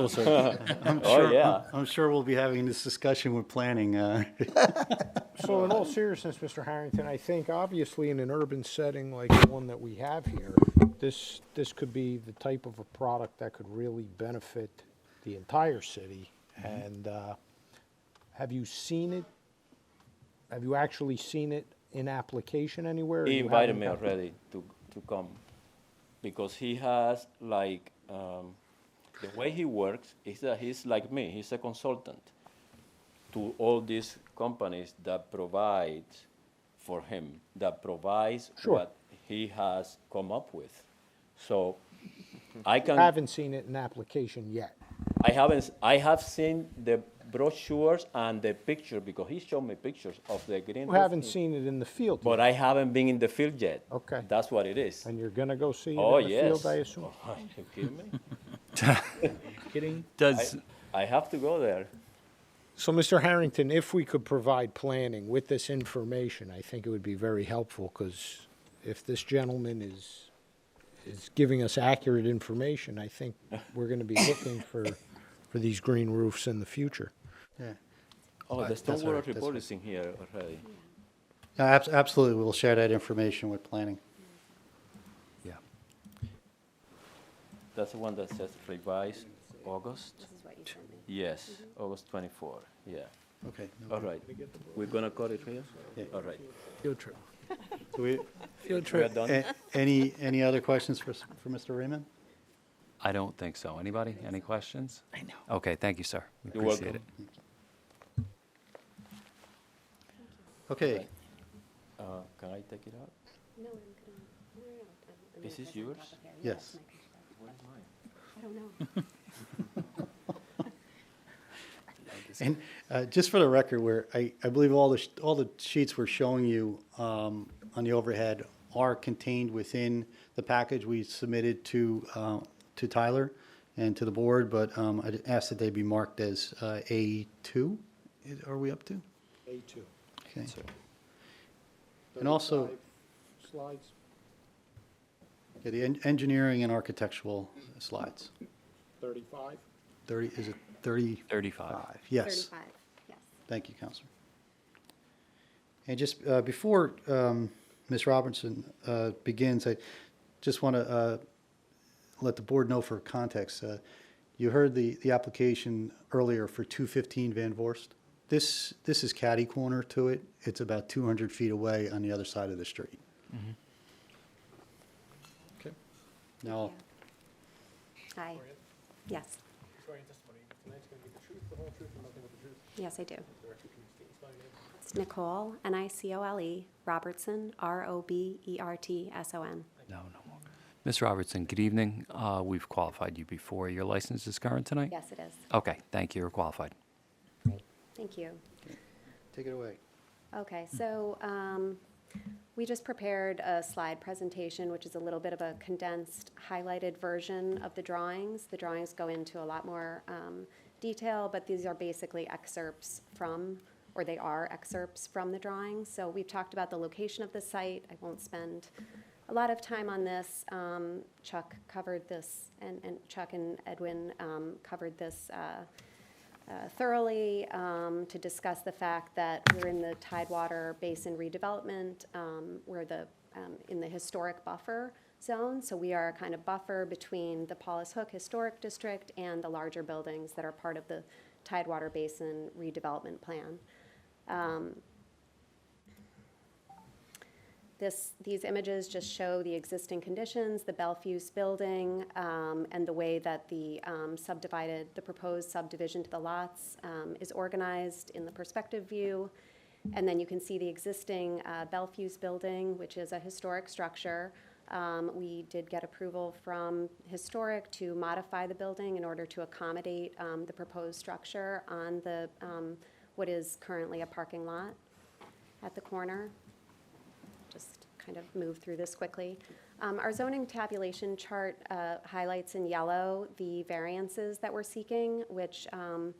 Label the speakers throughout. Speaker 1: I'm
Speaker 2: Oh,
Speaker 1: sure,
Speaker 2: yeah.
Speaker 1: I'm sure we'll be having this discussion with planning. uh,
Speaker 3: So in all seriousness, Mr. Harrington, I think obviously in an urban setting like the one that we have here, this, this could be the type of a product that could really benefit the entire city.
Speaker 2: Mm-hmm.
Speaker 3: And, uh, have you seen it? Have you actually seen it in application anywhere? or
Speaker 2: He
Speaker 3: you
Speaker 2: invited
Speaker 3: haven't
Speaker 2: me
Speaker 3: got-
Speaker 2: already to, to come because he has like um, the way he works is that he's like me. He's a consultant to all these companies that provide for him that provides
Speaker 3: Sure.
Speaker 2: what he has come up with. So I can
Speaker 3: Haven't seen it in application yet.
Speaker 2: I haven't. s- I have seen the brochures and the picture because he showed me pictures of the green.
Speaker 3: You
Speaker 2: roof
Speaker 3: haven't
Speaker 2: in-
Speaker 3: seen it in the field,
Speaker 2: But I haven't been in the field yet.
Speaker 3: Okay.
Speaker 2: That's what it is.
Speaker 3: and you're gonna go see it
Speaker 2: Oh,
Speaker 3: in the
Speaker 2: yes.
Speaker 3: field, I assume?
Speaker 2: Are you kidding me?
Speaker 3: Kidding?
Speaker 4: Does,
Speaker 2: I have to go there.
Speaker 3: So, Mr. Harrington, if we could provide planning with this information, I think it would be very helpful, because if this gentleman is, is giving us accurate information, I think we're gonna be looking for, for these green roofs in the future.
Speaker 1: yeah.
Speaker 2: Oh, the
Speaker 1: That's all
Speaker 2: stormwater
Speaker 1: right, that's
Speaker 2: report
Speaker 1: right.
Speaker 2: is in here already.
Speaker 1: No, abs- Absolutely, we'll share that information with planning.
Speaker 4: yeah.
Speaker 2: That's the one that says revised August.
Speaker 5: This is what you sent me.
Speaker 2: Yes, August 24. Yeah.
Speaker 3: Mm-hmm.
Speaker 1: Okay. no-
Speaker 2: All right. We're gonna cut it here.
Speaker 1: Yeah.
Speaker 2: All right.
Speaker 3: Field trip.
Speaker 1: do we-
Speaker 3: Field
Speaker 2: We are
Speaker 3: trip. Eh.
Speaker 2: done.
Speaker 1: a- Any, any other questions for, s- for Mr. Raymond?
Speaker 4: I don't think so. Anybody? Any questions? I know. Okay, thank you, sir. We
Speaker 2: You're
Speaker 4: appreciate it.
Speaker 2: welcome.
Speaker 1: Okay,
Speaker 2: Uh, can I take it out?
Speaker 5: No, I'm gonna, no, no, no. I'm- I'm
Speaker 2: Is
Speaker 5: gonna
Speaker 2: this
Speaker 5: press on
Speaker 2: yours?
Speaker 5: top of there.
Speaker 1: Yes.
Speaker 5: that's my computer. I don't know.
Speaker 1: and uh, just for the record, where I, I believe all the, sh- all the sheets we're showing you um, on the overhead are contained within the package we submitted to, uh, to Tyler and to the board, but um, I'd ask that they be marked as uh, A2, Is- are we up to?
Speaker 3: A two.
Speaker 1: Okay. And also,
Speaker 3: Slides.
Speaker 1: yeah, the en- engineering and architectural slides.
Speaker 3: Thirty-five.
Speaker 1: 30, is it 35?
Speaker 4: 35.
Speaker 1: Yes.
Speaker 5: Thirty-five, yes.
Speaker 1: Thank you, Counselor. And just uh, before um, Ms. Robinson uh, begins, I just want to let the board know for context. uh, You heard the, the application earlier for 215 Van Vorst. This, this is catty corner to it. It's about 200 feet away on the other side of the street.
Speaker 3: Okay.
Speaker 1: Now,
Speaker 5: Hi, yes, yes, I do. It's Nicole, N-I-C-O-L-E, E, Robertson, E R-O-B-E-R-T-S-O-N.
Speaker 4: No, no more. Ms. Robertson, good evening. Uh, We've qualified you before. Your license is current tonight?
Speaker 5: Yes, it is.
Speaker 4: Okay, thank you. You're qualified.
Speaker 5: Great, thank you.
Speaker 1: take it away.
Speaker 5: Okay, so um, we just prepared a slide presentation, which is a little bit of a condensed, highlighted version of the drawings. The drawings go into a lot more um, detail, but these are basically excerpts from, or they are excerpts from the drawings. So we've talked about the location of the site. I won't spend a lot of time on this. Um, Chuck covered this, and and Chuck and Edwin um, covered this uh, uh, thoroughly um, to discuss the fact that we're in the Tidewater Basin redevelopment. um, We're the, um, in the historic buffer zone, so we are a kind of buffer between the Paulus Hook Historic District and the larger buildings that are part of the Tidewater Basin redevelopment plan. This, these images just show the existing conditions, the Belfuse building, um, and the way that the um, subdivided, the proposed subdivision to the lots um, is organized in the perspective view. And then you can see the existing uh, Belfuse building, which is a historic structure. Um, We did get approval from Historic to modify the building in order to accommodate um, the proposed structure on the, um, what is currently a parking lot at the corner just kind of move through this quickly. Um, Our zoning tabulation chart uh, highlights in yellow the variances that we're seeking, which um,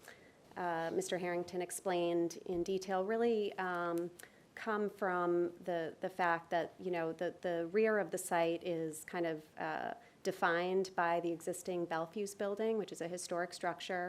Speaker 5: uh, Mr. Harrington explained in detail, really um, come from the, the fact that, you know, the, the rear of the site is kind of uh, defined by the existing Bellevue's building, which is a historic structure